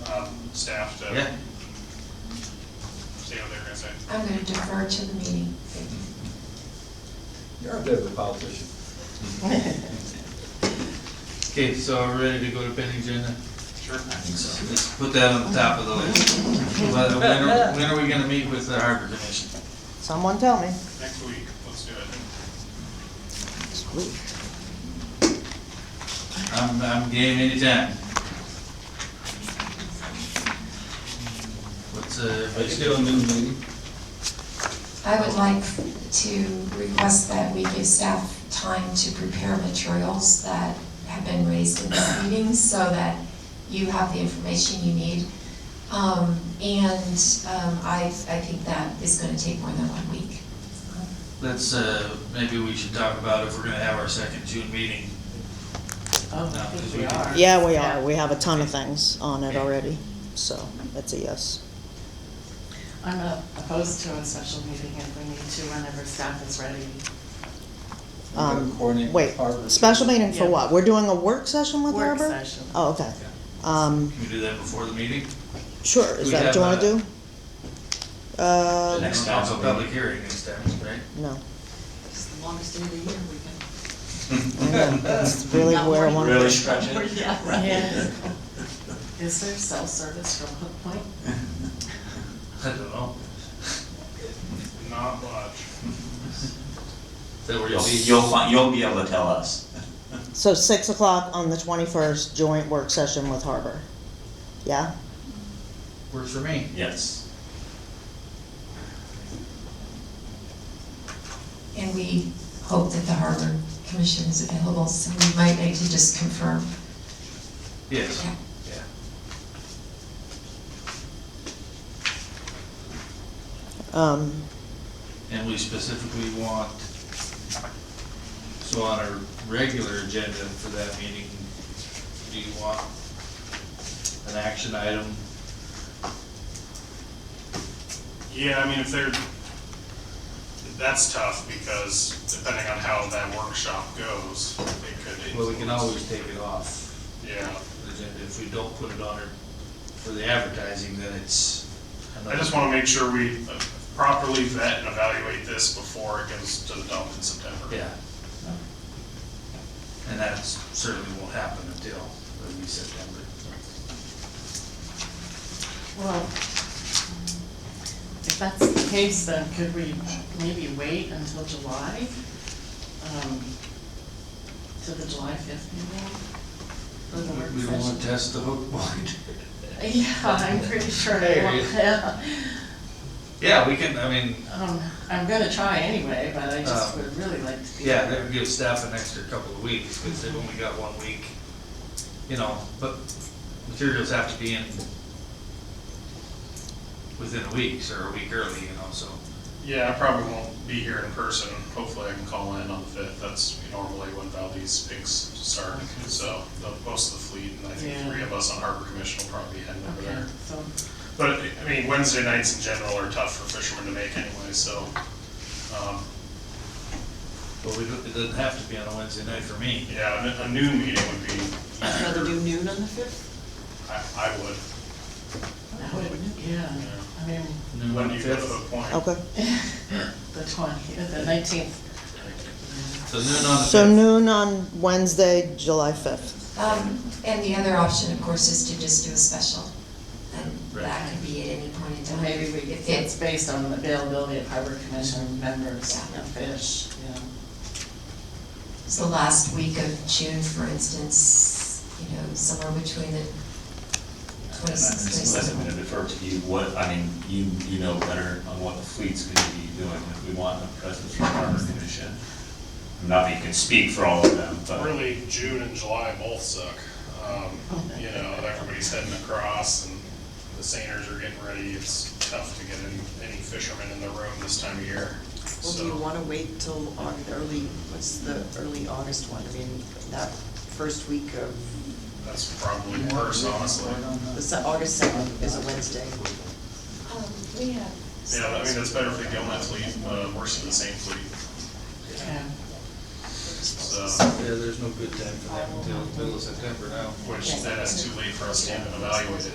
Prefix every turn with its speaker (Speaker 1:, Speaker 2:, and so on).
Speaker 1: um, staff to
Speaker 2: Yeah,
Speaker 1: see what they're gonna say.
Speaker 3: I'm gonna defer to the meeting.
Speaker 4: You're a bit of a politician.
Speaker 2: okay, so are we ready to go to pending agenda?
Speaker 1: Sure.
Speaker 2: Let's put that on the top of the list. When when are, when are we gonna meet with the harbor commission?
Speaker 5: Someone tell me.
Speaker 1: Next week, let's do it.
Speaker 2: I'm, I'm game anytime. What's, uh,
Speaker 4: Are you
Speaker 2: what's
Speaker 4: still in the meeting?
Speaker 3: I would like to request that we give staff time to prepare materials that have been raised in this meeting so that you have the information you need. Um, and, um, I, I think that is gonna take more than one week.
Speaker 2: Let's, uh, maybe we should talk about if we're gonna have our second June meeting.
Speaker 6: Oh,
Speaker 2: No,
Speaker 6: I think
Speaker 2: because
Speaker 6: we
Speaker 2: we
Speaker 6: are.
Speaker 5: Yeah, we
Speaker 6: Yeah.
Speaker 5: are. We have a ton of things on it already, so that's a yes.
Speaker 6: I'm not opposed to a special meeting if we need to, whenever staff is ready.
Speaker 4: We've got to
Speaker 5: Um,
Speaker 4: coordinate with
Speaker 5: Wait,
Speaker 4: Harvard.
Speaker 5: special meeting for
Speaker 6: Yeah.
Speaker 5: what? We're doing a work session with
Speaker 6: Work
Speaker 5: Harbor?
Speaker 6: session.
Speaker 5: Oh, okay. Um,
Speaker 2: Can we do that before the meeting?
Speaker 5: sure, is
Speaker 2: We
Speaker 5: that what you wanna
Speaker 2: have a-
Speaker 5: do?
Speaker 2: The
Speaker 5: Uh,
Speaker 2: next council public hearing next time, right?
Speaker 5: no.
Speaker 6: It's the longest day of the year we can.
Speaker 5: I know, That's really
Speaker 6: Not
Speaker 5: where I
Speaker 6: working.
Speaker 5: wanna.
Speaker 2: Really?
Speaker 6: Yeah, right. Is there cell service from Hook Point?
Speaker 2: I don't know.
Speaker 1: Not much.
Speaker 2: Is that where you'll
Speaker 7: You'll,
Speaker 2: be?
Speaker 7: you'll find, you'll be able to tell us.
Speaker 5: So six o'clock on the twenty-first, joint work session with Harbor. Yeah?
Speaker 2: Works for me.
Speaker 7: Yes.
Speaker 3: And we hope that the harbor commission is available, so we might need to just confirm.
Speaker 2: Yes.
Speaker 3: Yeah.
Speaker 2: Yeah.
Speaker 5: Um,
Speaker 2: And we specifically want, so on our regular agenda for that meeting, do you want an action item?
Speaker 1: Yeah, I mean, if they're, that's tough because depending on how that workshop goes, it could.
Speaker 2: Well, we can
Speaker 1: influence.
Speaker 2: always take it off
Speaker 1: Yeah,
Speaker 2: the agenda. If we don't put it on our, for the advertising, then it's.
Speaker 1: I just wanna make sure we uh, properly vet and evaluate this before it goes to the dump in September.
Speaker 2: Yeah. And that certainly won't happen until maybe September.
Speaker 6: Well, if that's the case, then could we maybe wait until July? um, To the July fifth meeting? For the work
Speaker 2: We don't wanna
Speaker 6: session?
Speaker 2: test the hook point.
Speaker 6: Yeah, I'm pretty sure I
Speaker 2: There
Speaker 6: won't,
Speaker 2: you go.
Speaker 6: yeah.
Speaker 2: Yeah, we can, I mean,
Speaker 6: Um, I'm gonna try anyway, but I just
Speaker 2: Um,
Speaker 6: would really like to be.
Speaker 2: Yeah, that would give staff an extra couple of weeks, because they've only got one week, you know, but materials have to be in within a week, or a week early, you know, so.
Speaker 1: Yeah, I probably won't be here in person. Hopefully I can call in on the fifth. That's normally when Valdez picks start. So the- most of the fleet and I
Speaker 6: Yeah.
Speaker 1: think three of us on Harbor Commission will probably be heading over
Speaker 6: Okay,
Speaker 1: there.
Speaker 6: so,
Speaker 1: But, I mean, Wednesday nights in general are tough for fishermen to make anyway, so, um,
Speaker 2: But we, don't- it doesn't have to be on a Wednesday night for me.
Speaker 1: yeah, a- a noon meeting would be,
Speaker 8: Rather do noon on the fifth?
Speaker 1: I, I would.
Speaker 6: that would, yeah, I mean,
Speaker 2: Noon
Speaker 1: When
Speaker 2: on
Speaker 1: do
Speaker 2: the
Speaker 1: you go to
Speaker 2: fifth,
Speaker 1: the point?
Speaker 8: Oh,
Speaker 5: okay.
Speaker 6: the twentieth, the nineteenth.
Speaker 2: so noon on the
Speaker 5: So
Speaker 2: fifth.
Speaker 5: noon on Wednesday, July fifth.
Speaker 3: Um, and the other option, of course, is to just do a special. And that
Speaker 2: Right.
Speaker 3: could be at any point in time.
Speaker 6: Maybe we,
Speaker 3: If
Speaker 6: it's
Speaker 3: it's,
Speaker 6: based on the availability of harbor commission members
Speaker 3: Yeah.
Speaker 6: and fish, yeah.
Speaker 3: it's the last week of June, for instance, you know, somewhere between the twenty-sixth,
Speaker 7: I'm gonna
Speaker 3: twenty-seventh.
Speaker 7: defer to you, what, I mean, you, you know better on what the fleet's gonna be doing, if we want a presence from Harbor Commission. Not that you can speak for all of them, but
Speaker 1: Really, June and July both suck. Um,
Speaker 8: Oh,
Speaker 1: You know, everybody's heading across and the seiners are getting ready. It's tough to get any, any fishermen in the room this time of year,
Speaker 8: Well, do you
Speaker 1: so.
Speaker 8: wanna wait till Au- early, what's the early August one? I mean, that first week of,
Speaker 1: That's probably worse, honestly.
Speaker 6: Mm-hmm.
Speaker 8: the se- August seventh is a Wednesday.
Speaker 3: We have.
Speaker 1: Yeah, I mean, that's better for the Gilman fleet, uh, worse than the same fleet,
Speaker 6: Yeah.
Speaker 1: so.
Speaker 2: Yeah, there's no good time for that until middle of September now.
Speaker 1: Which then it's too late for us to even evaluate it.